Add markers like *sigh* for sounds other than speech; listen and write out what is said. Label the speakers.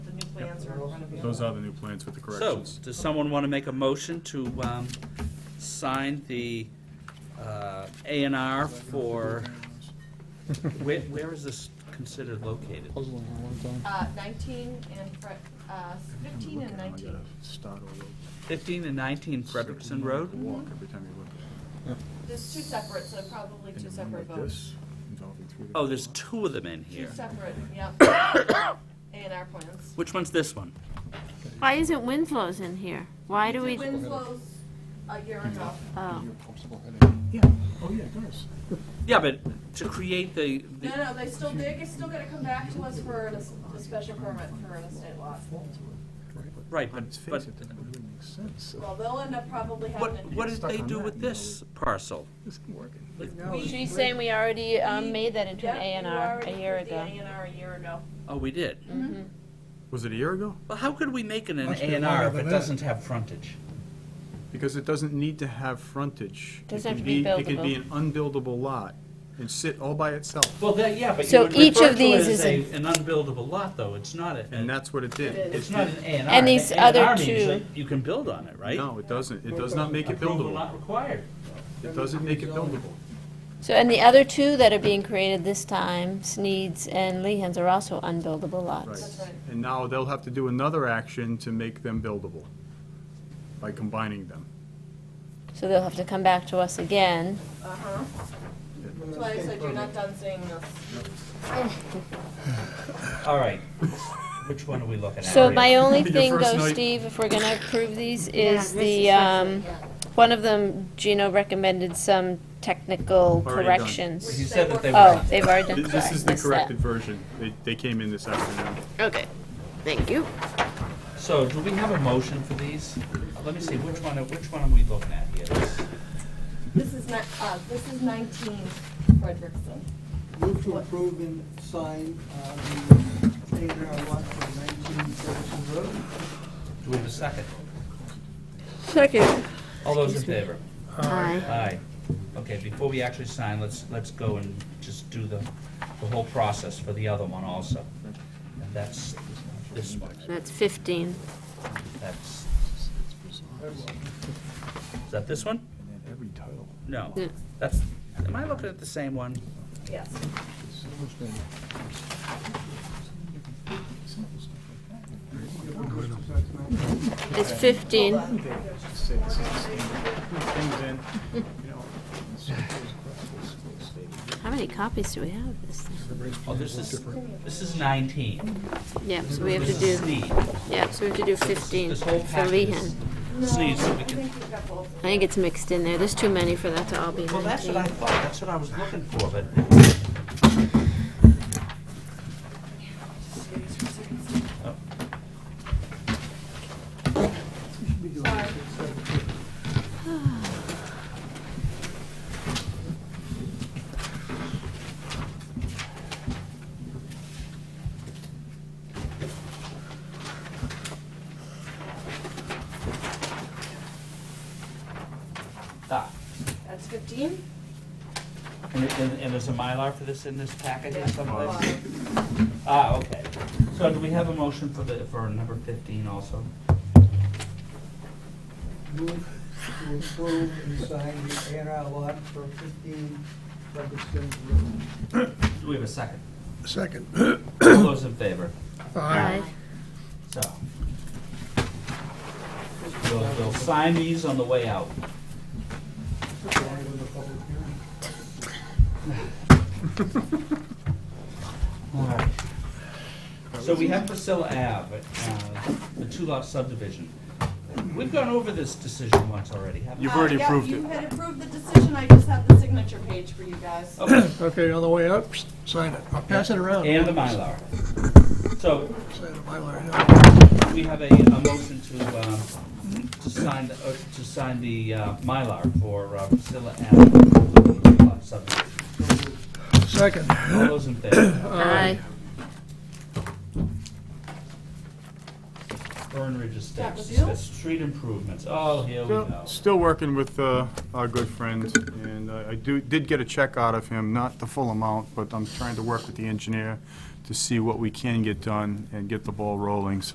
Speaker 1: are in front of you.
Speaker 2: Those are the new plans with the
Speaker 3: So,
Speaker 2: corrections.
Speaker 3: does someone want to make a motion to um, sign the uh, A and R for, where where is this considered located?
Speaker 4: Puzzling at one time.
Speaker 1: Uh, nineteen and, Fre- uh, fifteen and nineteen.
Speaker 2: Start all over.
Speaker 3: 15 and 19 Frederickson Road?
Speaker 2: Walk every time you look.
Speaker 1: There's two separate, so probably
Speaker 2: And
Speaker 1: two
Speaker 2: then
Speaker 1: separate
Speaker 2: like
Speaker 1: votes.
Speaker 2: this, involving three
Speaker 3: Oh, there's
Speaker 2: different
Speaker 3: two of them in
Speaker 1: Two
Speaker 3: here.
Speaker 1: separate, yep.
Speaker 2: *coughs*
Speaker 1: A and R plans.
Speaker 3: Which one's this one?
Speaker 5: Why isn't Winslow's in here? Why do we,
Speaker 1: Winslow's a year ago.
Speaker 5: oh,
Speaker 4: Your possible headache.
Speaker 2: lots. Yeah, oh yeah, it does.
Speaker 3: Yeah, but to create the, the-
Speaker 1: No, no, they still, they're still gonna come back to us for an es- a special permit for an estate lot.
Speaker 3: right,
Speaker 2: On
Speaker 3: but,
Speaker 2: its
Speaker 3: but
Speaker 2: face, it doesn't really make sense.
Speaker 1: Well, they'll end up probably having to.
Speaker 3: what, what
Speaker 1: do-
Speaker 3: did they do with this parcel?
Speaker 2: This isn't working.
Speaker 1: We-
Speaker 5: she's saying we already um, made that into an A
Speaker 1: Yeah,
Speaker 5: and
Speaker 1: you
Speaker 5: R
Speaker 1: already
Speaker 5: a year
Speaker 1: did the
Speaker 5: ago.
Speaker 1: A and R a year ago.
Speaker 3: Oh, we did.
Speaker 2: Was it a year ago?
Speaker 3: Well, how could we make it an A
Speaker 4: Must be
Speaker 3: and R
Speaker 4: longer
Speaker 3: if
Speaker 4: than
Speaker 3: it
Speaker 4: that.
Speaker 3: doesn't have frontage?
Speaker 2: Because it doesn't need to have frontage. It
Speaker 5: Doesn't have
Speaker 2: can
Speaker 5: to be
Speaker 2: It can be an unbuildable lot and sit all by itself.
Speaker 3: Well, that, yeah, but you
Speaker 5: So
Speaker 3: would
Speaker 5: each
Speaker 3: refer to
Speaker 5: of
Speaker 3: it
Speaker 5: these
Speaker 3: as
Speaker 5: is
Speaker 3: a- an unbuildable lot, though, it's not a,
Speaker 2: And that's what it did.
Speaker 1: It
Speaker 3: it's not an A and R.
Speaker 5: And these
Speaker 3: An A
Speaker 5: other
Speaker 3: R means
Speaker 5: two-
Speaker 3: that You can build on it, right?
Speaker 2: No, it doesn't. It does not make it
Speaker 3: Approval
Speaker 2: buildable.
Speaker 3: not required.
Speaker 2: It doesn't make it buildable.
Speaker 5: So, and the other two that are being created this time, Sneed's and Lehan's, are also unbuildable lots.
Speaker 2: Right.
Speaker 1: That's right.
Speaker 2: And now they'll have to do another action to make them buildable by combining them.
Speaker 5: So they'll have to come back to us again.
Speaker 1: Uh-huh. That's why I said you're not done seeing this.
Speaker 3: All right, which one are we looking at?
Speaker 5: So my
Speaker 2: *laughs*
Speaker 5: only
Speaker 2: Your
Speaker 5: thing
Speaker 2: first
Speaker 5: though,
Speaker 2: night.
Speaker 5: Steve, if we're gonna approve these,
Speaker 1: Yeah,
Speaker 5: is
Speaker 1: this
Speaker 5: the, um, one of them, Gino recommended some technical
Speaker 2: Already done.
Speaker 5: corrections.
Speaker 3: You said that they
Speaker 5: Oh,
Speaker 3: were,
Speaker 5: they've already done,
Speaker 2: Th- This
Speaker 5: sorry,
Speaker 2: is the
Speaker 5: missed that.
Speaker 2: corrected version. They, they came in this afternoon.
Speaker 5: Okay, thank you.
Speaker 3: so do we have a motion for these? Let me see, which one, are- which one are we looking at here? This-
Speaker 1: This is not, uh, this is nineteen Frederickson.
Speaker 6: Move to approve and sign uh, the A and R lot for 19 Ferguson Road.
Speaker 3: Do we have a second?
Speaker 5: Second.
Speaker 3: All those in favor?
Speaker 5: Aye.
Speaker 3: Aye. Okay, before we actually sign, let's, let's go and just do the, the whole process for the other one also. And that's this one,
Speaker 5: That's fifteen.
Speaker 3: that's, is that this one?
Speaker 2: Every title.
Speaker 3: No,
Speaker 5: Yeah.
Speaker 3: that's, am I looking at the same one?
Speaker 1: Yes.
Speaker 5: It's fifteen. How many copies do we have of this thing?
Speaker 3: Oh, this is, this is nineteen.
Speaker 5: Yeah, so we have to
Speaker 3: This is
Speaker 5: do,
Speaker 3: Sneed.
Speaker 5: yeah, so we have to do fifteen
Speaker 3: This
Speaker 5: for
Speaker 3: whole package
Speaker 5: Lehan.
Speaker 3: is Sneed, so we
Speaker 1: I
Speaker 3: can,
Speaker 1: think we've got both.
Speaker 5: I think it's mixed in there, there's too many for that to all be
Speaker 3: well, that's what I
Speaker 5: nineteen.
Speaker 3: thought, that's what I was looking for, but ah.
Speaker 1: That's fifteen?
Speaker 3: And, and, and there's a Mylar for this in this packet or someplace? Ah, okay. So do we have a motion for the, for number fifteen also?
Speaker 6: Move to approve and sign the A and R lot for 15 Ferguson Road.
Speaker 3: Do we have a second?
Speaker 7: Second.
Speaker 3: All those in favor?
Speaker 5: Aye.
Speaker 3: So. We'll, we'll sign these on the way out.
Speaker 6: Going to the public hearing.
Speaker 3: Alright. So we have Priscilla Ave, uh, the two-lot subdivision. We've gone over this decision once already, haven't we?
Speaker 2: You've already
Speaker 1: Uh, yeah,
Speaker 2: approved
Speaker 1: You
Speaker 2: it.
Speaker 1: had approved the decision, I just have the signature page for you guys.
Speaker 3: Okay,
Speaker 7: Okay, on the way up, psst, sign it. I'll pass it around.
Speaker 3: and the Mylar. So,
Speaker 7: Sign the Mylar, yeah.
Speaker 3: we have a, a motion to, um, to sign, the- uh, to sign the, uh, Mylar for uh, Priscilla Ave, the two-lot subdivision.
Speaker 7: Second.
Speaker 3: All those in favor?
Speaker 5: Aye.
Speaker 3: Burn Ridge
Speaker 1: That
Speaker 3: Estates,
Speaker 1: was you?
Speaker 3: that's street improvements, oh, here we
Speaker 2: Still,
Speaker 3: go.
Speaker 2: still working with uh, our good friend, and uh, I do, did get a check out of him, not the full amount, but I'm trying to work with the engineer to see what we can get done and get the ball rolling, so